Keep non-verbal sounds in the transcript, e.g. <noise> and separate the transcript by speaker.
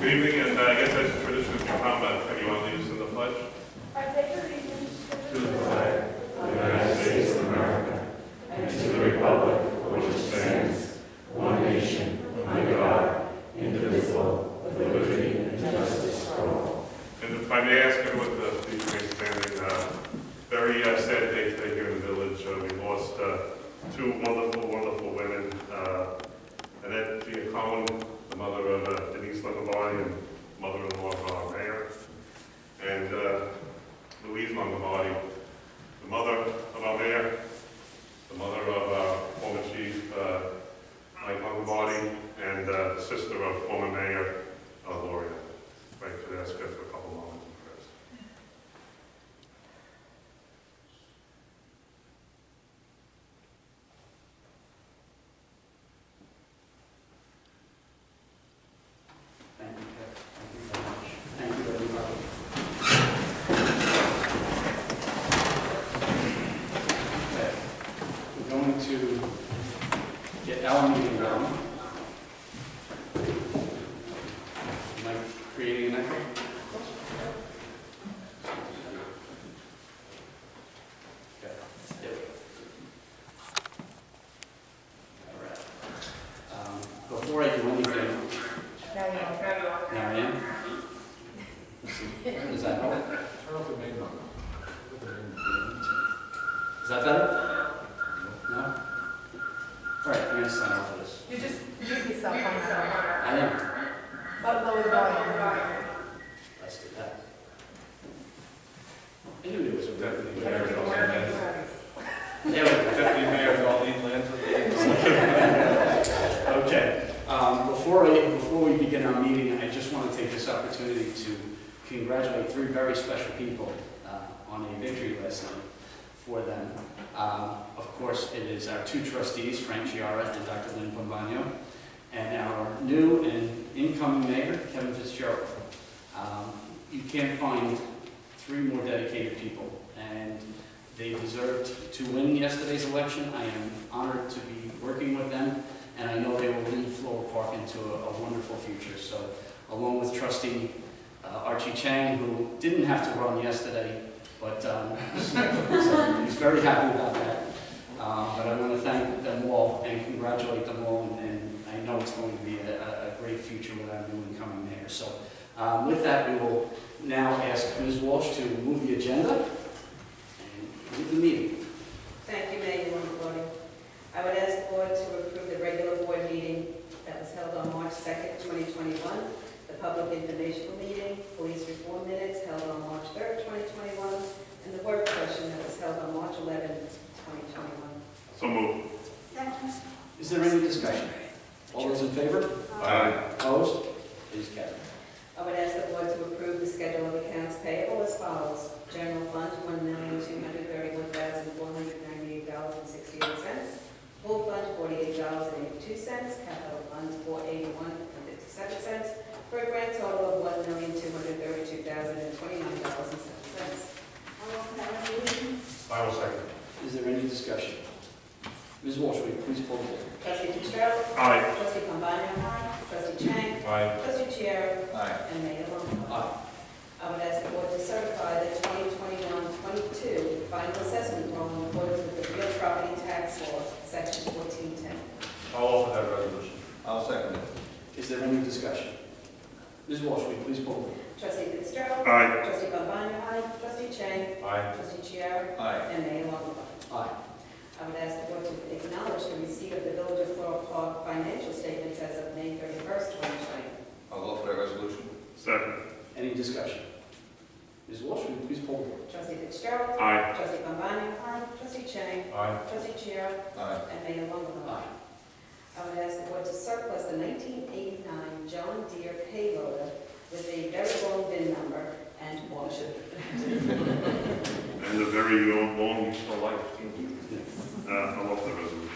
Speaker 1: Good evening, and uh, I guess that's a tradition of Muhammad. Can you all lead us in the pledge?
Speaker 2: I take allegiance to the
Speaker 1: And if I may ask everyone to please remain standing, uh, very uh, sad day today here in the village. Uh, We lost uh, two wonderful, wonderful women, uh, Annette Gia Cohen, the mother of uh, Denise Longavanti and mother-in-law of our mayor, and uh, Louise Longavanti, the mother of our mayor, the mother of our former chief, uh, Mike Longavanti, and uh, sister of former mayor, uh, Gloria. If I could ask her for a couple moments of prayers.
Speaker 3: Thank you, Ted. Thank you very much. Thank you, everybody. Okay. We're going to get our meeting going. Am I creating an echo? Okay. Yep. All right. Um, Before I do anything,
Speaker 2: Now you know.
Speaker 3: now I am. Is that help?
Speaker 4: Turn off the main one.
Speaker 3: Is that better? No? All right, I'm gonna sign off for this.
Speaker 2: You just mute yourself on that.
Speaker 3: I am.
Speaker 2: But lower volume.
Speaker 3: Let's do that. I knew it was a
Speaker 4: Deputy
Speaker 3: definitely.
Speaker 4: Mayor Dalton Lane.
Speaker 3: There we go.
Speaker 4: Deputy Mayor Dalton Lane.
Speaker 3: Okay, um, before I, before we begin our meeting, I just want to take this opportunity to congratulate three very special people uh, on a victory last night for them. Um, Of course, it is our two trustees, Frank Chiara and Dr. Lynn Pombano, and our new and incoming mayor, Kevin Fitzgerald. Um, You can't find three more dedicated people, and they deserved to win yesterday's election. I am honored to be working with them and I know they will lead Floral Park into a a wonderful future. So along with trustee uh, Archie Chang, who didn't have to run yesterday, but um, <laughs> so he's very happy about that. Uh, But I want to thank them all and congratulate them all, and- and I know it's going to be a- a a great future with our new incoming mayor. So um, with that, we will now ask Ms. Walsh to move the agenda and move the meeting.
Speaker 5: Thank you, Mayor Longavanti. I would ask the board to approve the regular board meeting that was held on March 2nd, 2021, the public informational meeting, police reform minutes held on March 3rd, 2021, and the work session that was held on March 11th, 2021.
Speaker 1: So moved.
Speaker 3: Is there any discussion? All those in favor?
Speaker 1: Aye.
Speaker 3: Opposed? Please carry.
Speaker 5: I would ask the board to approve the schedule of accounts payable as follows. General fund, one million, two hundred thirty-one thousand, four hundred ninety-eight dollars and sixty-eight cents. Pool fund, forty-eight dollars and eighty-two cents. Capital fund, four eighty-one and fifty-seven cents. For a grand total of one million, two hundred thirty-two thousand and twenty-nine dollars and seven cents.
Speaker 1: I will second.
Speaker 3: Is there any discussion? Ms. Walsh, will you please pull the board?
Speaker 5: Trustee Fitzgerald.
Speaker 1: Aye.
Speaker 5: Trustee Pombana. Trustee Chang.
Speaker 1: Aye.
Speaker 5: Trustee Chair.
Speaker 4: Aye.
Speaker 5: And Mayor Longfellow.
Speaker 3: Aye.
Speaker 5: I would ask the board to certify the 2021-22 final assessment roll in accordance with the real property tax law, section 1410.
Speaker 4: I'll offer that resolution. I'll second it.
Speaker 3: Is there any discussion? Ms. Walsh, will you please pull the board?
Speaker 5: Trustee Fitzgerald.
Speaker 1: Aye.
Speaker 5: Trustee Pabana. Trustee Chang.
Speaker 4: Aye.
Speaker 5: Trustee Chiara.
Speaker 4: Aye.
Speaker 5: And Mayor Longfellow.
Speaker 3: Aye.
Speaker 5: I would ask the board to acknowledge the receipt of the Village of Floral Park financial statements as of May 31st, 2020.
Speaker 4: I'll offer that resolution.
Speaker 1: Second.
Speaker 3: Any discussion? Ms. Walsh, will you please pull the board?
Speaker 5: Trustee Fitzgerald.
Speaker 1: Aye.
Speaker 5: Trustee Pabana. Trustee Chang.
Speaker 4: Aye.
Speaker 5: Trustee Chiara.
Speaker 4: Aye.
Speaker 5: And Mayor Longfellow.
Speaker 3: Aye.
Speaker 5: I would ask the board to surplus the 1989 John Deere payloader with a very long VIN number and warranty.
Speaker 1: And a very long, long useful life. Uh, I love the resolution.